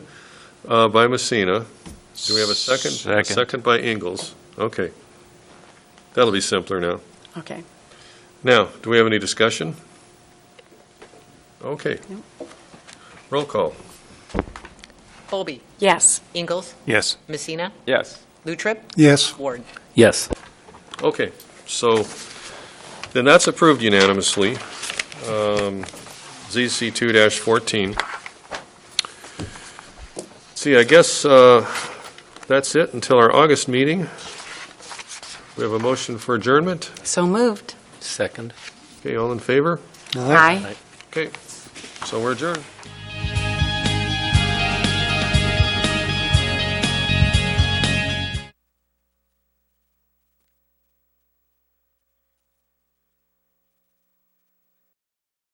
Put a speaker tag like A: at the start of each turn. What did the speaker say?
A: uh, by Messina. Do we have a second?
B: Second.
A: Second by Ingalls. Okay. That'll be simpler now.
C: Okay.
A: Now, do we have any discussion? Okay. Roll call.
D: Bowlby,
C: Yes.
D: Ingalls,
B: Yes.
D: Messina,
B: Yes.
D: Lutrip,
E: Yes.
D: Ward.
F: Yes.
A: Okay, so then that's approved unanimously. Um, ZC 2-14. See, I guess uh, that's it until our August meeting. We have a motion for adjournment.
C: So moved.
F: Second.
A: Okay, all in favor?
C: Aye.
A: Okay, so we're adjourned.